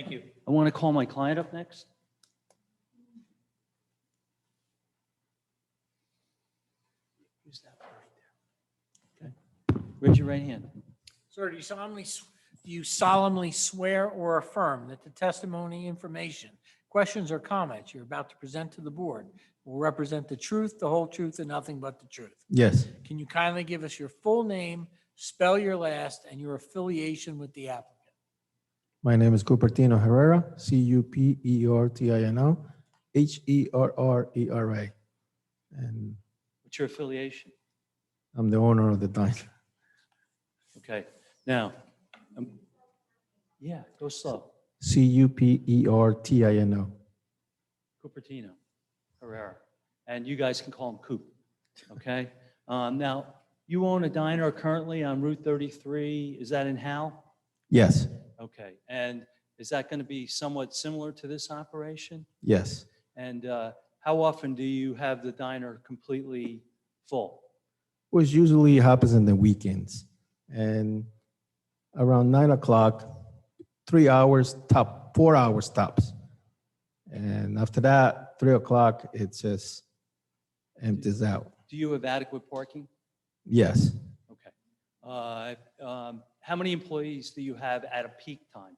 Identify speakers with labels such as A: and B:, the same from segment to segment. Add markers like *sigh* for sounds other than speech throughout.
A: Thank you.
B: I want to call my client up next. Who's that one right there? Okay. Raise your right hand.
A: Sir, do you solemnly, s- do you solemnly swear or affirm that the testimony, information, questions or comments you're about to present to the board will represent the truth, the whole truth, and nothing but the truth?
C: Yes.
A: Can you kindly give us your full name, spell your last, and your affiliation with the applicant?
C: My name is Cupertino Herrera, C U P E R T I N O, H E R R E R A. And
B: What's your affiliation?
C: I'm the owner of the diner.
B: Okay, now, um, yeah, go slow.
C: C U P E R T I N O.
B: Cupertino, Herrera, and you guys can call him Coop, okay? Um, Now, you own a diner currently on Route 33, is that in Hal?
C: Yes.
B: Okay, and is that going to be somewhat similar to this operation?
C: Yes.
B: And uh, how often do you have the diner completely full?
C: Which usually happens in the weekends. And around nine o'clock, three hours top, four hours tops. And after that, three o'clock, it just empties out.
B: Do you have adequate parking?
C: Yes.
B: Okay. Uh, um, How many employees do you have at a peak time?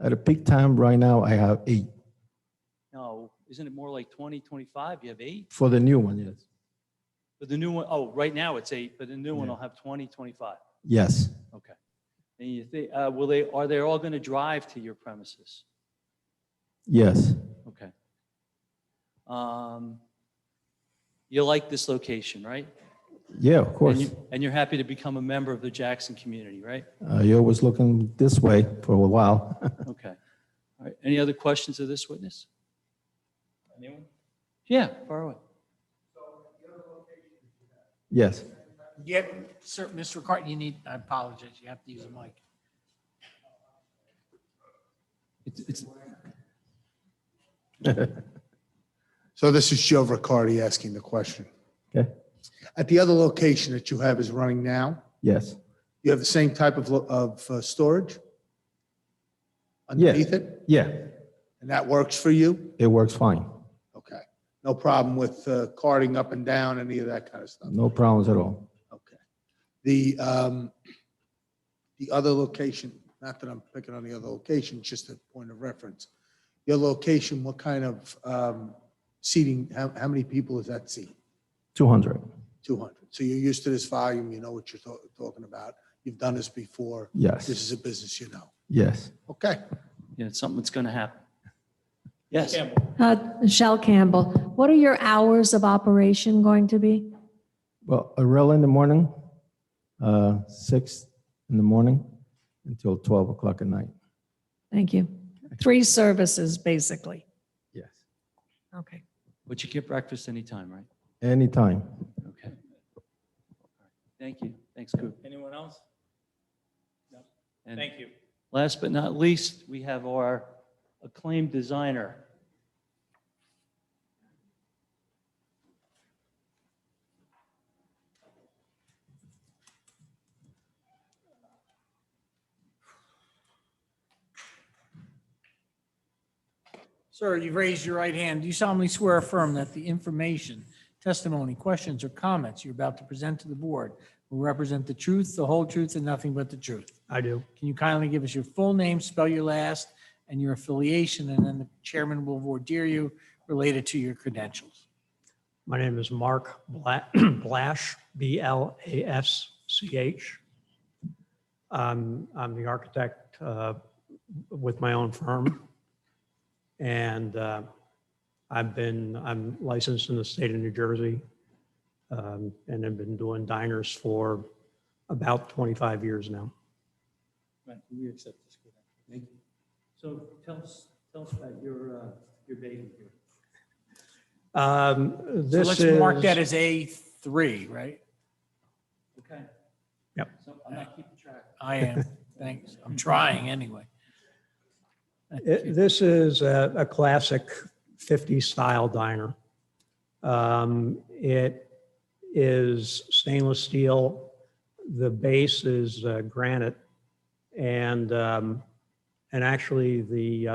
C: At a peak time right now, I have eight.
B: No, isn't it more like 20, 25? You have eight?
C: For the new one, yes.
B: But the new one, oh, right now it's eight, but the new one
C: Yeah.
B: will have 20, 25.
C: Yes,
B: Okay. And you think, uh, will they, are they all going to drive to your premises?
C: yes,
B: Okay. Um, You like this location, right?
C: yeah, of
B: And
C: course.
B: you- And you're happy to become a member of the Jackson community, right?
C: Uh, you're always looking this way for a while. *laughs*
B: Okay. All right. Any other questions of this witness? Anyone? Yeah, far away.
C: yes,
A: Yep. Sir, Mr. Carton, you need, I apologize, you have to use a mic.
B: It's, it's,
D: So this is Joe Riccardi asking the question.
C: okay,
D: At the other location that you have is running now,
C: yes,
D: you have the same type of, lo- of uh, storage
C: Yeah.
D: underneath it?
C: yeah,
D: And that works for you?
C: it works fine.
D: Okay. No problem with uh, carting up and down, any of that kind of stuff?
C: No problems at all.
D: Okay. The, um, the other location, not that I'm picking on the other location, just a point of reference. Your location, what kind of um, seating, how, how many people is that seat?
C: 200,
D: 200. So you're used to this volume, you know what you're to- talking about. You've done this before. This
C: yes,
D: is a business you know.
C: yes,
D: Okay.
B: you know, it's something that's going to happen. Yes.
E: Uh, Michelle Campbell, what are your hours of operation going to be?
C: well, Arella in the morning, uh, six in the morning until 12 o'clock at night.
E: Thank you. Three services, basically.
C: Yes.
E: Okay.
B: But you get breakfast anytime, right?
C: Anytime.
B: Okay. All right. Thank you. Thanks, Coop.
F: Anyone else?
B: And
F: Thank you.
B: Last but not least, we have our acclaimed designer.
A: Sir, you've raised your right hand. Do you solemnly swear or affirm that the information, testimony, questions, or comments you're about to present to the board will represent the truth, the whole truth, and nothing but the truth?
C: I do.
A: Can you kindly give us your full name, spell your last, and your affiliation, and then the chairman will ordeer you related to your credentials?
G: My name is Mark Bla- *clears throat* Blash, B-L-A-S-C-H. Um, I'm the architect uh, with my own firm. And uh, I've been, I'm licensed in the state of New Jersey. um, And I've been doing diners for about 25 years now.
F: Right, we accept this. Thank you.
B: So tell us, tell us about your, uh, your baby here.
G: Um,
A: So
G: This
A: let's
G: is.
A: mark that as A3, right?
B: Okay.
G: Yep.
B: So I'm not keeping track.
A: I am, thanks. I'm trying anyway.
G: It- This is a, a classic 50s style diner. Um, It is stainless steel. The base is uh, granite. And, um, and actually the,